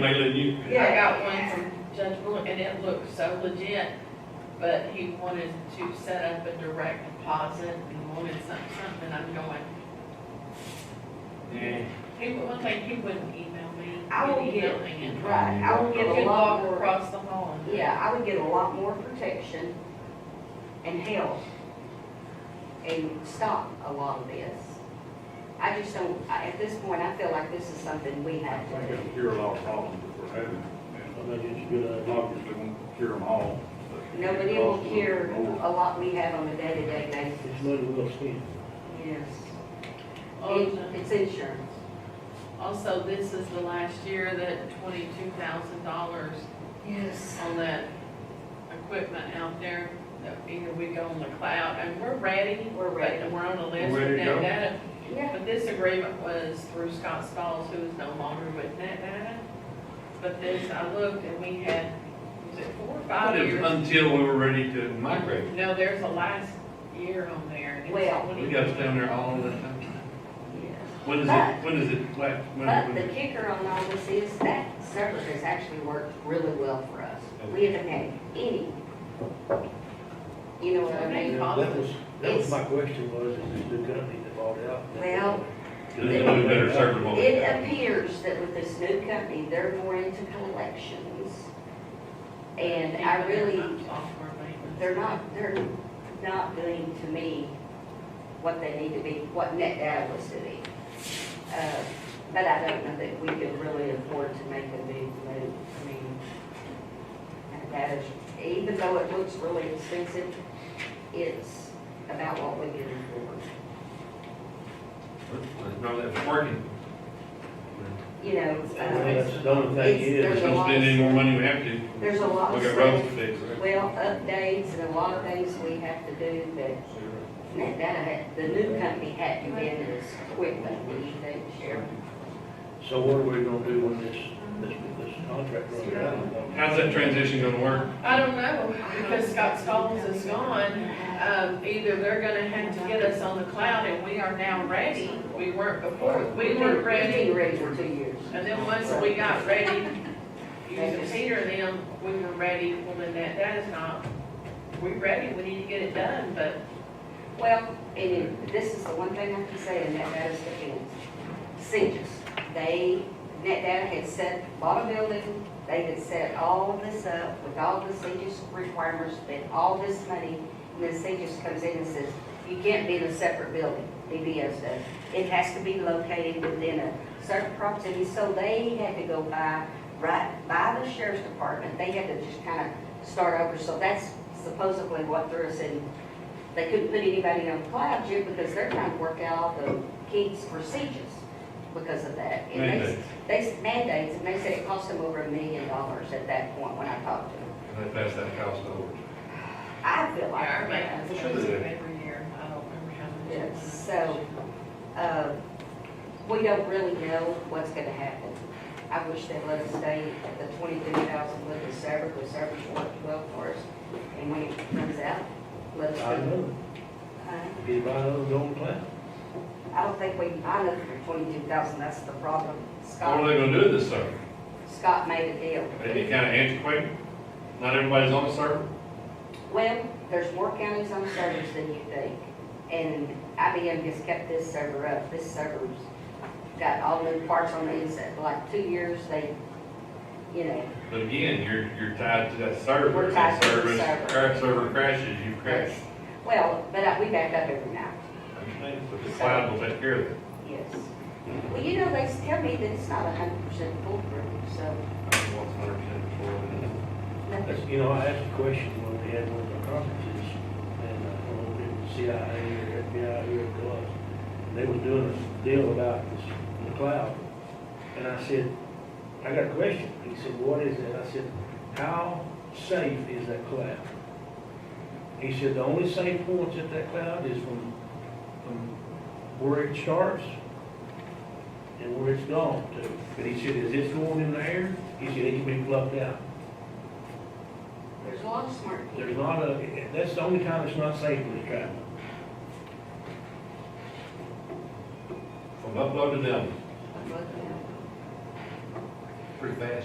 mailing you? Yeah, I got one from Judge Bullock, and it looked so legit, but he wanted to set up a direct deposit and wanted something, something, I'm going, Yeah. he, would- one thing, he wouldn't email me. I will He'd get- email me and- Right, I would You get a could lot walk more, across the hall and. yeah, I would get a lot more protection and help and stop a lot of this. I just don't, I- at this point, I feel like this is something we I have to think do. it'll cure a lot of problems that we're having. I think it's a good idea. Obviously, won't cure them all. but- Nobody will care a lot we have on a day-to-day It's basis. money well spent. Yes. Also- It- It's insurance. Also, this is the last year that twenty-two thousand dollars Yes. on that equipment out there, that either we go on the cloud, and we're ready, We're but ready. we're on the list Ready with to go. that data. Yeah, But this agreement was through Scott Stalls, who is no longer with NetData. But this, I looked and we had, was it four or But five it was years? Until we were ready to migrate. No, there's a last year on there. It's Well- We got us down there all the time. yes. When is But- it, when is it, like, when, But the when? kicker on all this is that server has actually worked really well for us. We haven't had any. You know what I mean? That was, that was It's- my question was, is this new company that bought out? Well, uh, There's no better server than what we It have. appears that with this new company, they're more into collections. And I really, Software maintenance. they're not, they're not doing to me what they need to be, what net data was doing. Uh, But I don't know that we can really afford to make a big move. I mean, net data, even though it looks really expensive, it's about what we can afford. No, that's working. You know, Well, uh, that's the only thing It's- there's is, a- Don't spend any more money we have to. there's a lot of We got stuff- roads to fix, right? Well, updates and a lot of things we have to do, but that, that, had- the new company had to get in as quickly, what do you think, Sheriff? so what are we gonna do when this, this, this contract runs out? How's that transition gonna work? I don't know, because Scott Stalls is gone. Um, either they're gonna have to get us on the cloud and we are now ready. We weren't before, we weren't ready. We've been ready for two years. And then once we got ready, using Peter and them, we were ready, well, then that, that is not, we're ready, we need to get it done, but Well, and it- this is the one thing I can say, and that that is the fence. Seniors, they, that data had set, bought a building, they had set all this up with all the seniors requirements, spent all this money, and then seniors comes in and says, you can't be in a separate building, DBS does. It has to be located within a certain proximity, so they had to go by, right, by the sheriff's department, they had to just kind of start over, so that's supposedly what threw us in they couldn't put anybody on cloud yet because they're trying to work out all the kids' procedures because of that. And they, Mandates. they, mandates, and they said it cost them over a million dollars at that point when I talked to them. And they pass that house over. I feel like. our maintenance that. Sure goes they do. up every year, I don't remember how much. it Yes, was. so- Uh, we don't really know what's gonna happen. I wish they'd let us stay at the twenty-three thousand with the server, the server's worked well for us. And when it comes out, let us. I know, Huh? get right on the own plan. I don't think we can buy nothing for twenty-two thousand, that's the problem. What are Scott, they gonna do this summer? Scott made a deal. Isn't it kinda antiquated? Not everybody's on the server? Well, there's more counties on servers than you think, and IBM just kept this server up, this server's got all new parts on it, it's like two years, they, you know, But again, you're, you're tied to that server. We're tied to the Service- server. crash- Server crashes, you crash. that's, well, but I- we back up every night, Okay, But the cloud will take care of that. yes. Well, you know, they tell me that it's not a hundred percent foolproof, so, I don't know what's 100% before. nothing. You know, I asked a question when we had one of the conferences, and uh, I don't know if it was CIA or FBI, who it was, and they was doing a deal about this, the cloud. And I said, I got a question. He said, what is that? I said, how safe is that cloud? He said, the only safe points at that cloud is from, from where it starts and where it's gone to. But he said, is this going in the air? He said, it can be plucked out. there's a lot of smart people. There's not a, that's the only time it's not safe in the traffic. From upload to down, I'm looking at it. pretty fast.